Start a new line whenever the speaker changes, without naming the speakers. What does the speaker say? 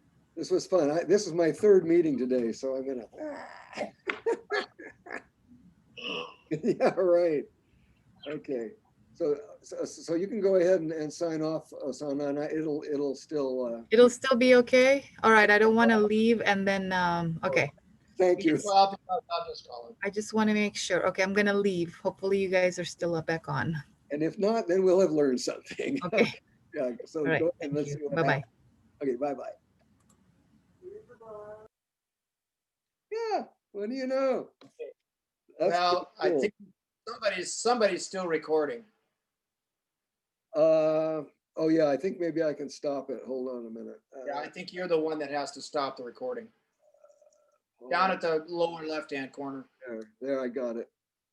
This was fun. I, this is my third meeting today, so I'm gonna. ah. Yeah, right. Okay, so, so, so you can go ahead and, and sign off, uh, Sanana. It'll, it'll still, uh,
It'll still be okay? All right, I don't want to leave and then, um, okay,
thank you.
Well, I'll, I'll I'll just call him.
I just want to make sure. Okay, I'm gonna leave. Hopefully you guys are still up back on.
And if not, then we'll have learned something.
Okay,
Yeah, so
all
go
right,
ahead and
thank
let's see
you.
what happens.
Bye-bye.
Okay, bye-bye. Yeah, what do you know? That's
Well, I
cool.
think somebody's, somebody's still recording.
Uh, oh yeah, I think maybe I can stop it. Hold on a minute.
Yeah, I
Uh,
think you're the one that has to stop the recording.
hold
Down
on.
at the lower left-hand corner.
There, there, I got it.